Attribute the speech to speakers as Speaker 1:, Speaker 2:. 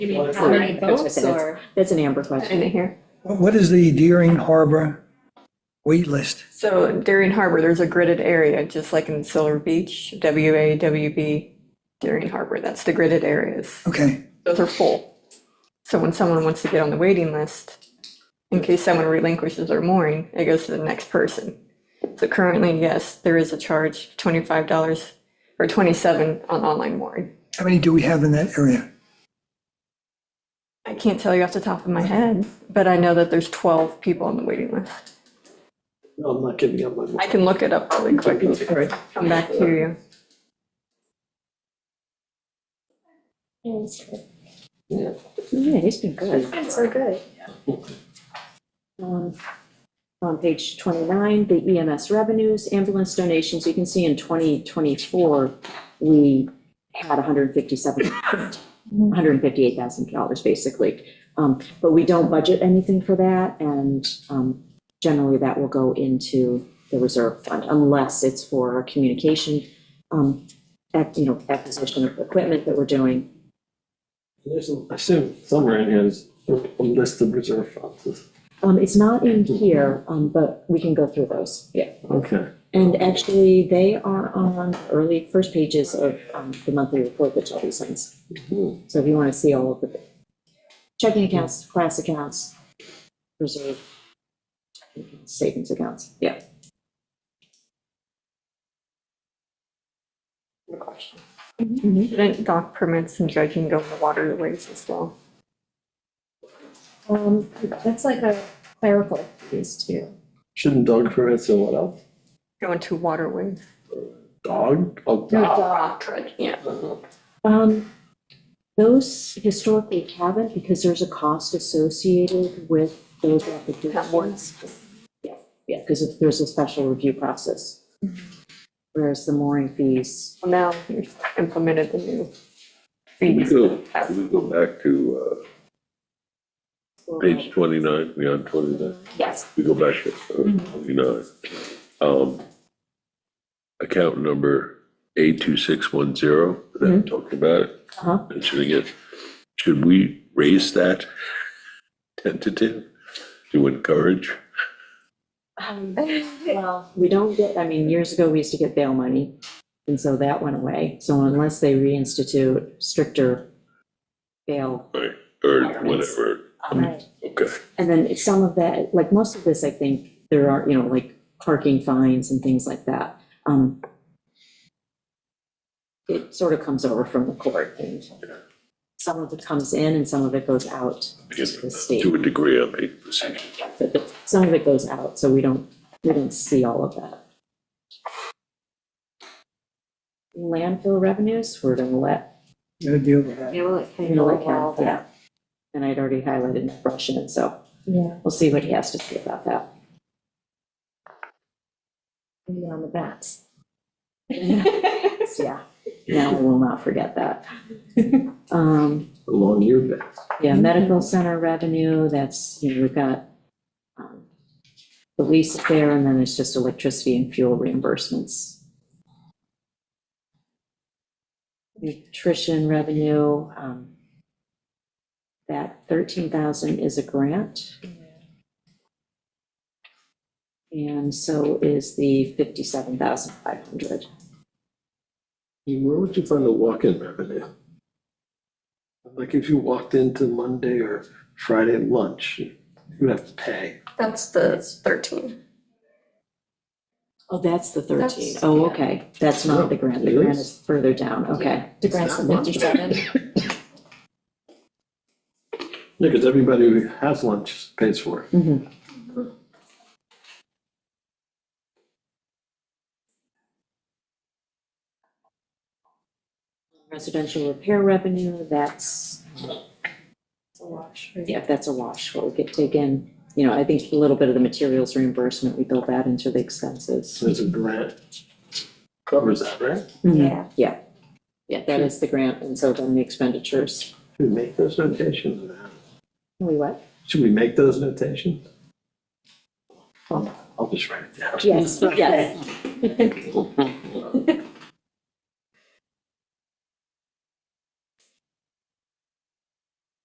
Speaker 1: You mean how
Speaker 2: For-
Speaker 1: many
Speaker 2: that's what I'm
Speaker 1: boats
Speaker 2: saying,
Speaker 1: or?
Speaker 2: That's an Amber question here.
Speaker 3: What is the Deering Harbor wait list?
Speaker 4: So Darien Harbor, there's a gridded area, just like in Silver Beach, WA, WB, Darien Harbor, that's the gridded areas.
Speaker 3: Okay,
Speaker 4: Those are full. So when someone wants to get on the waiting list, in case someone relinquishes their mooring, it goes to the next person. So currently, yes, there is a charge, twenty-five dollars or twenty-seven on online mooring.
Speaker 3: how many do we have in that area?
Speaker 4: I can't tell you off the top of my head, but I know that there's twelve people on the waiting list.
Speaker 2: No, I'm not giving up my.
Speaker 4: I can look it up really quick and
Speaker 3: All right,
Speaker 4: come back to you.
Speaker 2: Yeah.
Speaker 5: Yeah, he's been good.
Speaker 1: It's so good.
Speaker 5: Um, On page 29, the EMS revenues, ambulance donations, you can see in 2024, we had 157, $158,000 basically. Um, But we don't budget anything for that, and um, generally that will go into the reserve fund unless it's for a communication, um, ac- you know, acquisition of equipment that we're doing.
Speaker 2: There's, a- I assume somewhere in here is a list of reserve funds.
Speaker 5: Um, It's not in here, um, but we can go through those. Yeah.
Speaker 2: Okay.
Speaker 5: And actually, they are on early first pages of um, the monthly report that Shelby sends.
Speaker 2: Mhm.
Speaker 5: So if you want to see all of the checking accounts, class accounts, reserve, checking accounts, savings accounts, yeah. Mm-hmm.
Speaker 4: Shouldn't dock permits and dredging go in the waterways as well?
Speaker 5: Um, That's like a clerical piece too.
Speaker 2: Shouldn't dog permits and what else?
Speaker 4: Go into waterways?
Speaker 2: Dog? Oh, dog.
Speaker 4: dock. Yeah.
Speaker 5: Um, Those historically haven't because there's a cost associated with those applications. Yeah, because there's a special review process. Whereas the mooring fees,
Speaker 4: Well, Now you've implemented the new fees.
Speaker 6: Can we go back to uh, page twenty-nine, we on twenty-nine?
Speaker 5: Yes.
Speaker 6: We go back to uh, twenty-nine. Um, Account number A two six one zero, that we talked about, it,
Speaker 5: Uh-huh.
Speaker 6: mentioning it. Should we raise that tentative to encourage?
Speaker 5: Well, we don't get, I mean, years ago, we used to get bail money, and so that went away. So unless they reinstitute stricter bail.
Speaker 6: Right, or whatever, okay.
Speaker 5: And then some of that, like most of this, I think, there are, you know, like parking fines and things like that. Um, It sort of comes over from the court, and some of it comes in and some of it goes out to the state.
Speaker 6: To a degree, I make decisions.
Speaker 5: But some of it goes out, so we don't, we don't see all of that. Landfill revenues, we're gonna let,
Speaker 3: gotta deal with that.
Speaker 1: Yeah, well, it
Speaker 5: we're
Speaker 1: kind
Speaker 5: gonna
Speaker 1: of
Speaker 5: let Cal,
Speaker 1: all that.
Speaker 5: yeah. And I'd already highlighted that brush in, so
Speaker 1: Yeah,
Speaker 5: we'll see what he has to say about that.
Speaker 1: maybe on the bats.
Speaker 5: Yeah, now we will not forget that. Um,
Speaker 2: Along your bed.
Speaker 5: yeah, medical center revenue, that's, you know, we've got, um, the lease there, and then it's just electricity and fuel reimbursements. nutrition revenue, um, that thirteen thousand is a grant. And so is the fifty-seven thousand five hundred.
Speaker 2: Where would you find the walk-in revenue? Like if you walked into Monday or Friday at lunch, you would have to pay.
Speaker 4: That's the thirteen.
Speaker 5: Oh, that's the thirteen.
Speaker 4: That's-
Speaker 5: Oh, okay, that's not the grant, the grant
Speaker 2: It is.
Speaker 5: is further down, okay.
Speaker 1: The grants
Speaker 2: Not
Speaker 1: of
Speaker 2: much.
Speaker 1: fifty-seven.
Speaker 2: Yeah, because everybody who has lunch pays for it.
Speaker 5: Mhm. Residential repair revenue, that's, uh,
Speaker 1: It's a wash, right?
Speaker 5: yeah, that's a wash, what we could take in. You know, I think a little bit of the materials reimbursement, we build that into the expenses.
Speaker 2: So it's a grant. Covers that, right?
Speaker 5: Mm-hmm.
Speaker 1: Yeah.
Speaker 5: Yeah, yeah, that is the grant, and so then the expenditures.
Speaker 2: Should we make those notations or not?
Speaker 5: We what?
Speaker 2: Should we make those notations? I'll I'll just write it down.
Speaker 5: Yes, yes.